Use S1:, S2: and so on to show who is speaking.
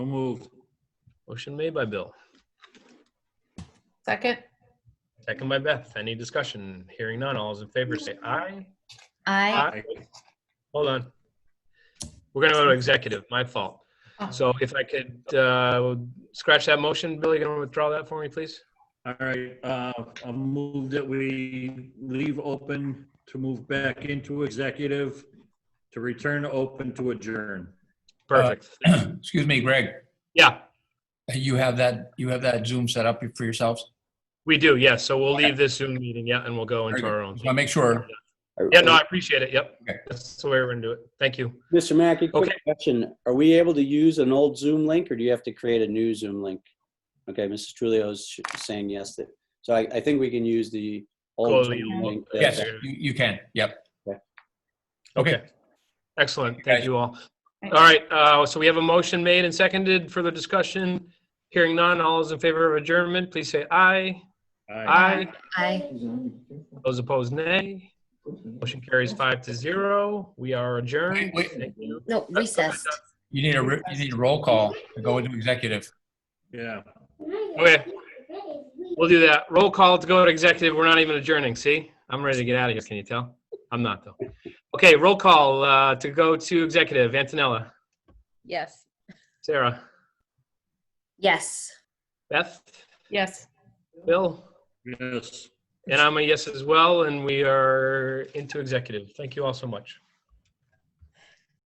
S1: So moved.
S2: Motion made by Bill,
S3: Second?
S2: second by Beth. Any discussion? Hearing none. All those in favor say aye.
S3: Aye.
S2: Aye. Hold on. We're gonna go to executive, my fault. So if I could uh, scratch that motion, Bill, you gonna withdraw that for me, please?
S1: All right, uh, I move that we leave open to move back into executive, to return to open to adjourn.
S4: Uh,
S2: Perfect.
S4: Excuse me, Greg,
S2: Yeah,
S4: you have that, you have that Zoom set up for yourselves?
S2: we do, yes. So we'll leave this Zoom meeting, yeah, and we'll go into
S4: Very
S2: our own.
S4: Just want to make sure.
S2: Yeah, no, I appreciate it. Yep.
S4: Okay.
S2: That's the way we're gonna do it. Thank you.
S5: Mr. Mackey, quick
S2: Okay.
S5: question. Are we able to use an old Zoom link or do you have to create a new Zoom link? Okay, Mrs. Trulio's sh- saying yes. that- So I, I think we can use the
S2: Call
S5: old
S2: the
S5: Zoom
S2: old-
S5: link. that-
S4: Yes, you, you can. Yep.
S2: Okay. Excellent. Thank
S4: Guys.
S2: you all. All right, uh, so we have a motion made and seconded. Further discussion? Hearing none. All those in favor of adjournment, please say aye. Aye.
S3: Aye.
S2: Those opposed, nay. Motion carries five to zero. We are adjourned.
S4: Wait, wait.
S2: Thank you.
S3: No, recessed.
S4: You need a, re- you need a roll call to go into executive.
S1: Yeah,
S2: Okay. We'll do that. Roll call to go to executive. We're not even adjourning. See? I'm ready to get out of here. Can you tell? I'm not though. Okay, roll call, uh, to go to executive. Antonella,
S6: Yes.
S2: Sarah,
S3: Yes.
S2: Beth,
S6: Yes.
S2: Bill,
S1: yes.
S2: and I'm a yes as well, and we are into executive. Thank you all so much.